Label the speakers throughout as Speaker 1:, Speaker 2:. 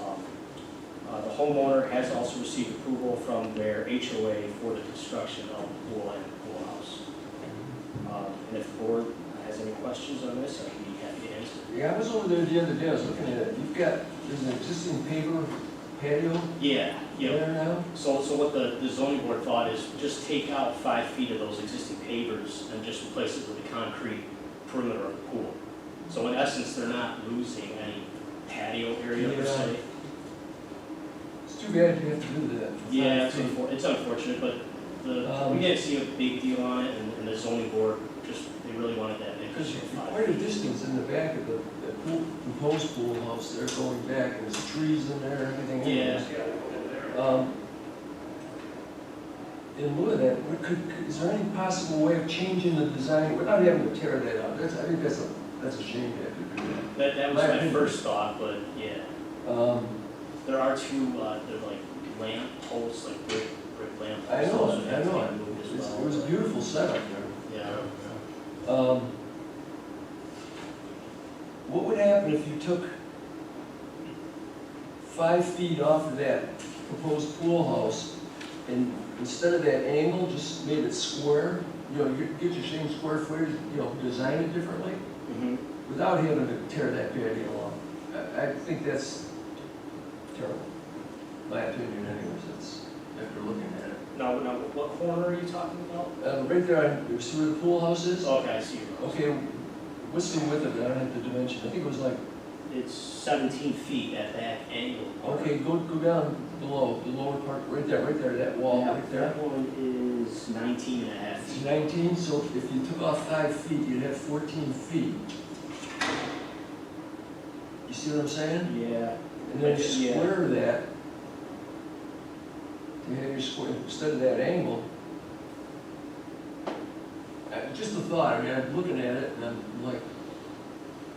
Speaker 1: Um, uh, homeowner has also received approval from their HOA for the construction of the pool and pool house. Um, And if the board has any questions on this, I'd be happy to answer.
Speaker 2: Yeah, I was over there the other day, I was looking at it, you've got, there's an existing paper patio
Speaker 1: Yeah, yeah.
Speaker 2: there now?
Speaker 1: So, so what the the zoning board thought is just take out five feet of those existing pavers and just replace it with a concrete perimeter of the pool. So in essence, they're not losing any patio area per se.
Speaker 2: It's too bad you have to do that.
Speaker 1: Yeah, it's unfor- it's unfortunate, but the, we
Speaker 2: Um,
Speaker 1: didn't see a big deal on it, and, and the zoning board just, they really wanted that
Speaker 2: Because
Speaker 1: additional
Speaker 2: you're
Speaker 1: five.
Speaker 2: quite a distance in the back of the, the pool, proposed pool house, they're going back, and there's trees in there, everything.
Speaker 1: Yeah.
Speaker 2: Um, In lieu of that, what could, could- is there any possible way of changing the design without having to tear that out? That's, I think that's a, that's a shame to have to do
Speaker 1: That, that was
Speaker 2: My
Speaker 1: my
Speaker 2: opinion.
Speaker 1: first thought, but yeah,
Speaker 2: that. Um,
Speaker 1: there are two, uh, they're like lamp posts, like brick, brick lamp
Speaker 2: I
Speaker 1: posts.
Speaker 2: know,
Speaker 1: those would
Speaker 2: I
Speaker 1: have to be
Speaker 2: know,
Speaker 1: moved as
Speaker 2: It's-
Speaker 1: well,
Speaker 2: it was a
Speaker 1: but-
Speaker 2: beautiful setup there.
Speaker 1: Yeah,
Speaker 2: Um, What would happen if you took five feet off of that proposed pool house and instead of that angle, just made it square? You know, you get your same square footage, you know, design it differently
Speaker 1: mhm.
Speaker 2: without having to tear that patio off. I, I think that's terrible. My opinion anyways, that's, after looking at it.
Speaker 1: Now, now, what corner are you talking about?
Speaker 2: Uh, right there, on- you see where the pool house is?
Speaker 1: Okay, I see. your-
Speaker 2: Okay, what's the width of it? I don't have the dimension. I think it was like,
Speaker 1: It's seventeen feet at that angle.
Speaker 2: okay, go, go down below, the lower part, right there, right there, that wall,
Speaker 1: Yeah,
Speaker 2: right there.
Speaker 1: That one is nineteen and a half
Speaker 2: It's
Speaker 1: feet.
Speaker 2: nineteen, so if you took off five feet, you'd have fourteen feet. You see what I'm saying?
Speaker 1: Yeah,
Speaker 2: And then you
Speaker 1: Yeah.
Speaker 2: square that. You have your square, instead of that angle. Uh, Just a thought, I mean, I'm looking at it and I'm like,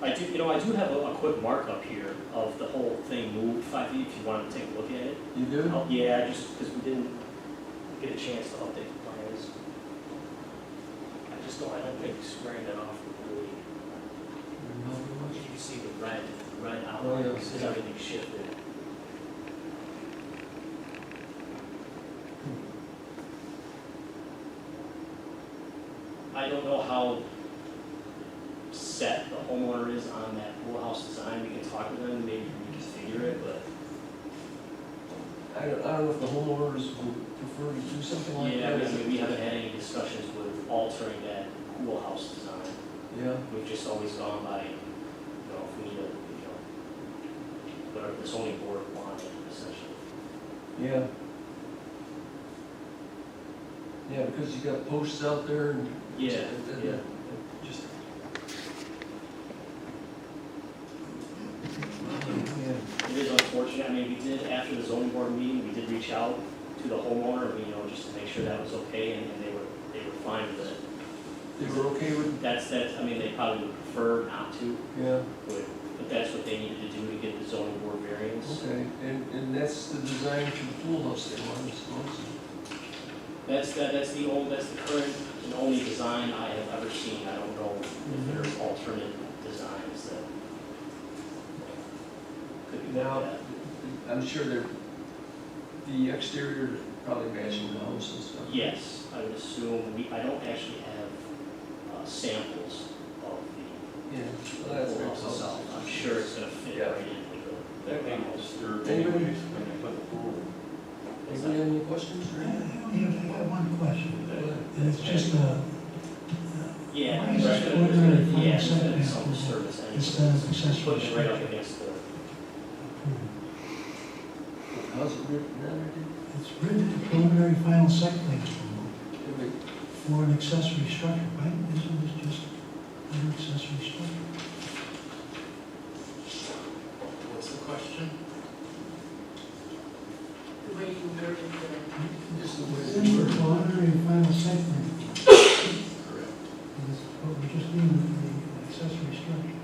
Speaker 1: I do, you know, I do have a, a quick markup here of the whole thing moved five feet, if you wanted to take a look at it.
Speaker 2: you do?
Speaker 1: Oh, Yeah, just because we didn't get a chance to update the plans. I just don't, I don't think squaring that off would really, you can see the red, the red outline,
Speaker 2: yeah.
Speaker 1: because everything shifted. I don't know how set the homeowner is on that pool house design, we can talk to them, maybe reconfigure it, but
Speaker 2: I don't, I don't know if the homeowners would prefer to do something like
Speaker 1: Yeah,
Speaker 2: that.
Speaker 1: I mean, we haven't had any discussions with altering that pool house design.
Speaker 2: Yeah,
Speaker 1: We've just always gone by, you know, if we need a, you know, whatever the zoning board wanted, essentially.
Speaker 2: yeah. Yeah, because you got posts out there and.
Speaker 1: Yeah, yeah.
Speaker 2: Just.
Speaker 1: It is unfortunate, I mean, we did, after the zoning board meeting, we did reach out to the homeowner, you know, just to make sure that was okay, and and they were, they were fine with it.
Speaker 2: They were okay with,
Speaker 1: That's, that's, I mean, they probably would prefer not to,
Speaker 2: yeah,
Speaker 1: but, but that's what they needed to do to get the zoning board variance.
Speaker 2: okay, and, and that's the design for the pool house they wanted, I suppose.
Speaker 1: That's, that, that's the old, that's the current and only design I have ever seen. I don't know if there are alternate designs that could be
Speaker 2: Now,
Speaker 1: looked at.
Speaker 2: I'm sure they're, the exterior probably matching the house and stuff.
Speaker 1: Yes, I would assume, we, I don't actually have uh, samples of
Speaker 2: Yeah,
Speaker 1: the
Speaker 2: well, that's very
Speaker 1: house itself.
Speaker 2: close.
Speaker 1: I'm sure it's gonna fit
Speaker 2: Yeah.
Speaker 1: right in.
Speaker 3: That may
Speaker 1: What's
Speaker 3: disturb
Speaker 2: Anybody?
Speaker 3: anyways when they put the pool in.
Speaker 2: Anybody
Speaker 1: that?
Speaker 2: have any questions or
Speaker 4: I
Speaker 2: anything?
Speaker 4: have one question, and it's just a,
Speaker 1: Yeah.
Speaker 4: Why is
Speaker 1: it's
Speaker 4: it
Speaker 1: gonna- it's
Speaker 4: ordinary
Speaker 1: gonna- Yeah, it's
Speaker 4: front
Speaker 1: gonna be
Speaker 4: setback
Speaker 1: some
Speaker 4: approval?
Speaker 1: service anyway.
Speaker 4: it's not an accessory
Speaker 1: Putting it right up
Speaker 4: structure.
Speaker 1: against the,
Speaker 2: How's it written down
Speaker 4: It's written in preliminary final site plan approval
Speaker 2: there, dude?
Speaker 4: for an accessory structure, right? Isn't this just an accessory structure?
Speaker 5: What's the question?
Speaker 6: the way you worded the,
Speaker 2: Just the
Speaker 4: It's
Speaker 2: way
Speaker 4: in the
Speaker 2: it's written.
Speaker 4: preliminary final site plan,
Speaker 5: Correct.
Speaker 4: and it's, but we're just dealing with the accessory structure.
Speaker 5: Um,
Speaker 4: uh,